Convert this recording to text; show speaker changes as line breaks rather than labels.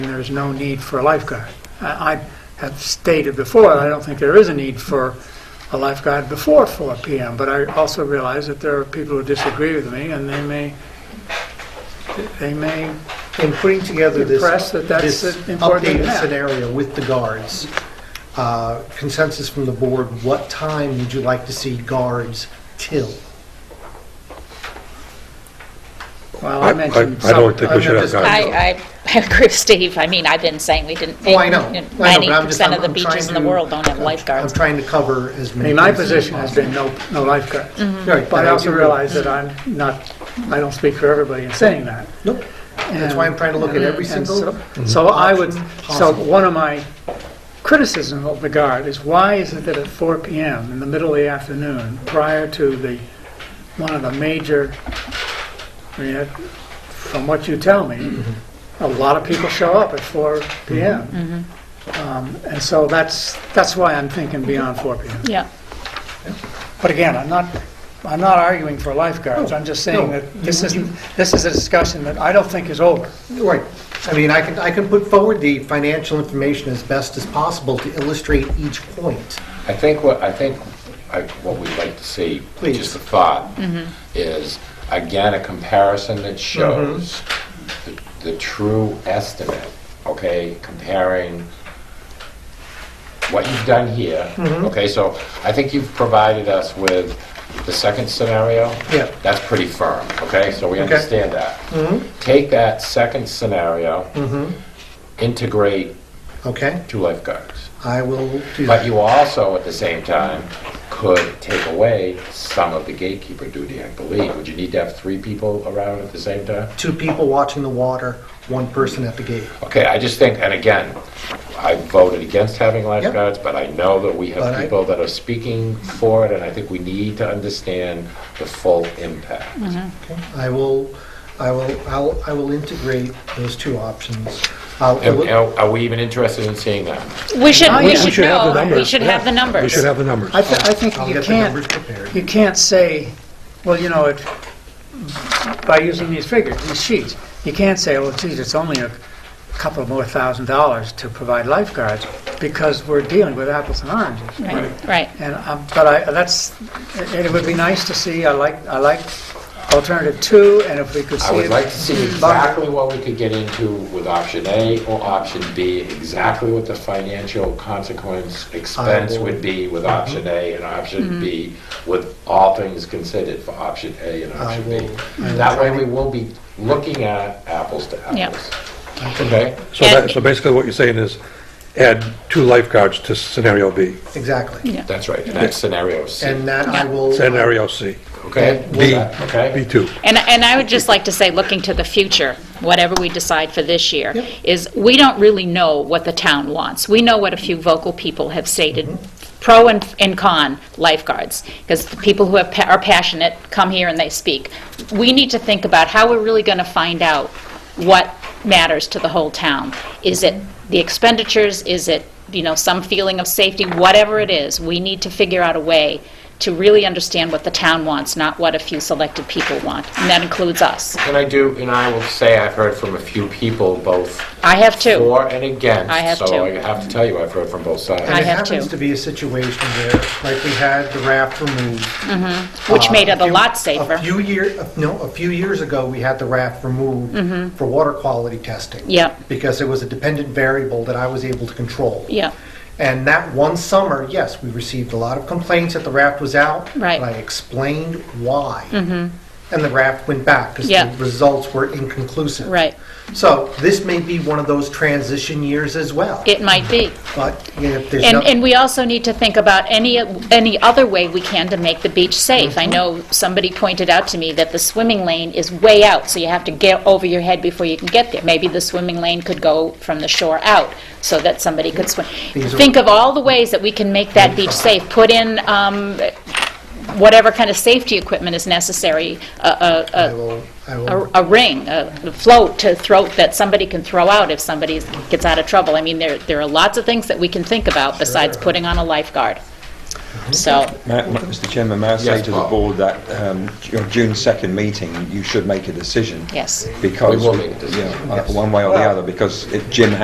there's no need for a lifeguard. I I have stated before, that I don't think there is a need for a lifeguard before 4 PM, but I also realize that there are people who disagree with me, and they may, they may,
in putting together this,
Impressed that that's
this
an important
updated
map.
scenario with the guards, uh, consensus from the board, what time would you like to see guards till?
well, I
I-
mentioned...
I- I
some-
don't think we should have
just-
guards.
I, I agree with Steve. I mean, I've been saying we didn't.
Oh, I know. I know, but I'm just-
90% of
I'm- I'm
the
trying
beaches in the
to-
world don't have
I'm
lifeguards.
trying to cover as
I
many.
mean, my
things as
position has been no no lifeguards.
possible. Right,
But I also
do-
realize that I'm not, I don't speak for everybody in saying that.
Nope, that's why I'm trying to look at every
And
single,
so- So I would,
option
so
possible.
one of my criticisms of the guard is why is it that at 4 PM in the middle of the afternoon, prior to the, one of the major, I mean, that- from what you tell me, a lot of people show up at 4 PM. Um, And so that's, that's why I'm thinking beyond 4 PM.
Yeah,
But again, I'm not, I'm not arguing for lifeguards, I'm just saying
No,
that this isn't, this is a discussion that I don't think is over.
right. I mean, I can, I can put forward the financial information as best as possible to illustrate each point.
I think what, I think I- what we'd like to see,
Please. Mm-hmm.
just a thought, is, again, a comparison that shows
Mm-hmm.
the- the true estimate, okay, comparing what you've done here,
Mm-hmm.
okay, so I think you've provided us with the second scenario.
Yeah.
That's pretty firm, okay, so we
Okay. Mm-hmm.
understand that. Take that second scenario,
Mm-hmm.
integrate
Okay,
two lifeguards.
I will do
But
that.
you also, at the same time, could take away some of the gatekeeper duty, I believe. Would you need to have three people around at the same time?
Two people watching the water, one person at the gate.
Okay, I just think, and again, I voted against having lifeguards, but I know that we
But
have
I-
people that are speaking for it, and I think we need to understand the full impact.
I will, I will, I'll, I will integrate those two options. Uh, I'll-
And Are are we even interested in seeing that?
we should,
I-
we
We
should
should have the
know. We
numbers.
should have the numbers.
We should have the numbers.
I, th- I think
I'll
you
get the numbers
can't,
prepared.
you can't say, well, you know, it, by using these figures, these sheets, you can't say, well, geez, it's only a couple more thousand dollars to provide lifeguards, because we're dealing with apples and oranges.
Right, right.
And, um, but I, that's, and it would be nice to see, I like, I like alternative two, and if we could see.
I would
it-
like to see exactly what we could get into with option A or option B, exactly what the financial consequence expense would be with option A and option B, with all things considered for option A and option B.
will- I will
That way
try
we will be looking at apples to
Yeah.
apples. Okay?
So that, so basically what you're saying is add two lifeguards to scenario B,
Exactly.
That's right, and that's scenario C,
And that I will. uh,
scenario C,
okay?
B.
Okay?
B2.
And, and I would just like to say, looking to the future, whatever we decide for this year,
Yep.
is we don't really know what the town wants. We know what a few vocal people have stated, pro and, and con lifeguards, because the people who have, pa- are passionate come here and they speak. We need to think about how we're really going to find out what matters to the whole town. Is it the expenditures? Is it, you know, some feeling of safety? Whatever it is, we need to figure out a way to really understand what the town wants, not what a few selected people want. And that includes us.
And I do, and I will say I've heard from a few people, both
I have two.
for and against.
I have
So
two.
I have to tell you, I've heard from both sides.
I
And it
have
happens
to.
to be a situation where, like we had the raft removed.
Which
uh,
made it a
few-
lot safer.
A few year, uh, no, a few years ago, we had the raft removed for water quality testing.
Mm-hmm. Yep.
Because it was a dependent variable that I was able to control.
Yeah,
And that one summer, yes, we received a lot of complaints that the raft was out.
Right. Mm-hmm.
But I explained why. And the raft went back because
Yeah.
the results were inconclusive.
right.
So this may be one of those transition years as well.
It might be.
But you know, if there's
And,
nothing.
and we also need to think about any, any other way we can to make the beach safe.
Mm-hmm.
I know somebody pointed out to me that the swimming lane is way out, so you have to get over your head before you can get there. Maybe the swimming lane could go from the shore out, so that somebody could swim.
These are-
Think of all the ways that we can make that beach safe. Put in um, whatever kind of safety equipment is necessary, a- a- a-
I will, I
a
will,
a ring, a float to throw, that somebody can throw out if somebody gets out of trouble. I mean, there, there are lots of things that we can think about besides putting on a lifeguard. So,
Ma- ma- Mr. Chairman, may I say
Yes,
to the
Bob.
board that um, your June 2nd meeting, you should make a decision.
yes.
Because.
We will make a decision,
yeah, uh, One way or the other, because if Jim